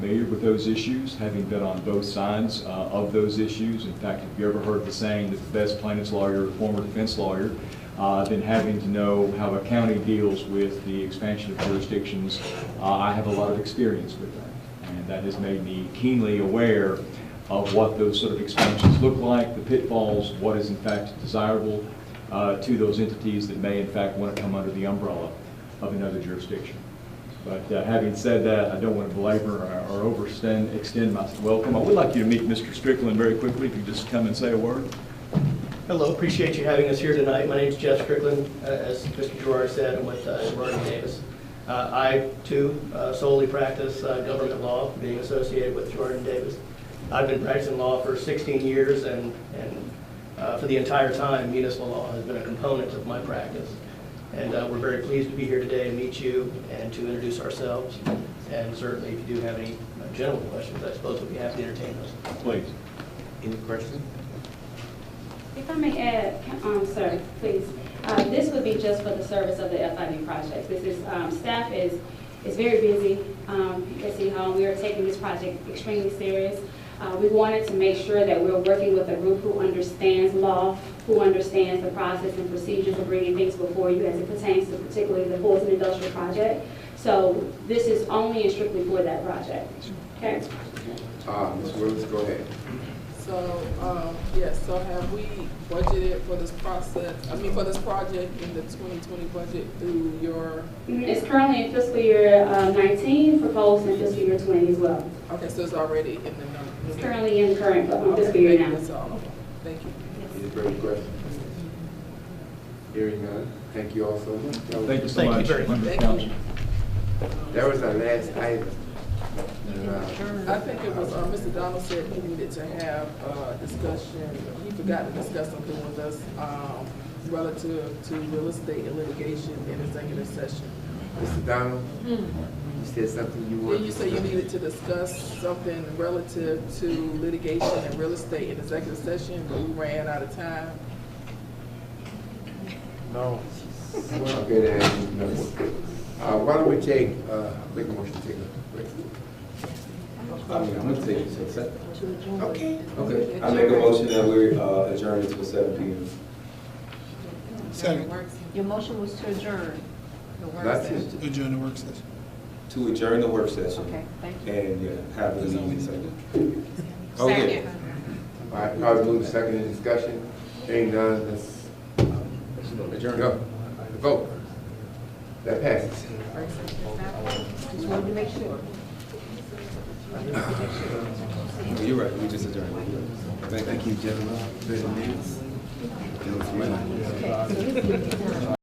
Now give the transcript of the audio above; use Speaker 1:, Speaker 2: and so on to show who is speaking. Speaker 1: familiar with those issues, having been on both sides uh, of those issues. In fact, if you ever heard the saying that the best plaintiff's lawyer, is a former defense lawyer, uh, then having to know how a county deals with the expansion of jurisdictions, uh, I have a lot of experience with that. And that has made me keenly aware of what those sort of expansions look like, the pitfalls, what is in fact desirable uh, to those entities that may in fact want to come under the umbrella of another jurisdiction. But uh, having said that, I don't want to belabor or or overextend, extend my welcome. I would like you to meet Mr. Strickland very quickly, if you just come and say a word.
Speaker 2: Hello, appreciate you having us here tonight. My name's Jeff Strickland, Uh, as Mr. Gerard said, I'm with uh, Gerard and Davis. Uh, I, too, uh, solely practice uh, government law, being associated with Gerard and Davis. I've been practicing law for 16 years, and and uh, for the entire time, municipal law has been a component of my practice. And uh, we're very pleased to be here today to meet you and to introduce ourselves. And certainly, if you do have any uh, general questions, I suppose we'd be happy to entertain those.
Speaker 1: Please.
Speaker 3: Any questions?
Speaker 4: If I may add, um, sir, please, uh, this would be just for the service of the FID project. This is, um, staff is, is very busy, um, at City Hall. We are taking this project extremely serious. Uh, we wanted to make sure that we're working with a group who understands law, who understands the process and procedures of bringing things before you as it pertains to particularly the Fulton Industrial Project. So this is only and strictly for that project, okay?
Speaker 3: Uh, Ms. Williams, go ahead.
Speaker 5: So, um, yes, so have we budgeted for this process, I mean, for this project in the twenty twenty budget through your,
Speaker 4: Mm, It's currently in fiscal year uh, 19, proposed in fiscal year 20 as well.
Speaker 5: okay, so it's already in the number?
Speaker 4: It's currently in current uh,
Speaker 5: Okay,
Speaker 4: fiscal year
Speaker 5: thank you,
Speaker 4: now.
Speaker 5: that's all. Thank you.
Speaker 3: Any further questions? Hearing none, thank you all so much. That was-
Speaker 1: Thank you so
Speaker 2: Thank you
Speaker 1: much.
Speaker 2: very much.
Speaker 1: members of
Speaker 5: Thank you.
Speaker 1: council.
Speaker 3: That was our last item. And, uh,
Speaker 5: I think it was, uh, Mr. Donald said he needed to have a discussion, he forgot to discuss something with us, um, relative to real estate and litigation in executive session.
Speaker 3: Mr. Donald, you said something you
Speaker 5: Well,
Speaker 3: wanted.
Speaker 5: Hmm. you say you needed to discuss something relative to litigation and real estate in executive session, but we ran out of time.
Speaker 3: Okay, then, no. Uh, why don't we take, uh, make a motion, to take a break.
Speaker 6: I mean, I'm gonna take it to seven.
Speaker 3: Okay.
Speaker 6: Okay, I make a motion that we uh, adjourn until seven P M.
Speaker 7: Your motion was to adjourn.
Speaker 3: That's it.
Speaker 8: adjourn the work session.
Speaker 6: To adjourn the work session.
Speaker 7: Okay, thank you.
Speaker 6: And yeah, have it on the second. Okay.
Speaker 3: Oh, All right, probably move to second in discussion. Hearing none, let's adjourn. Vote. That passes.
Speaker 7: Just wanted to make sure.
Speaker 6: Oh, You're right, we just adjourned. Thank you, gentlemen.
Speaker 7: Okay, so this is-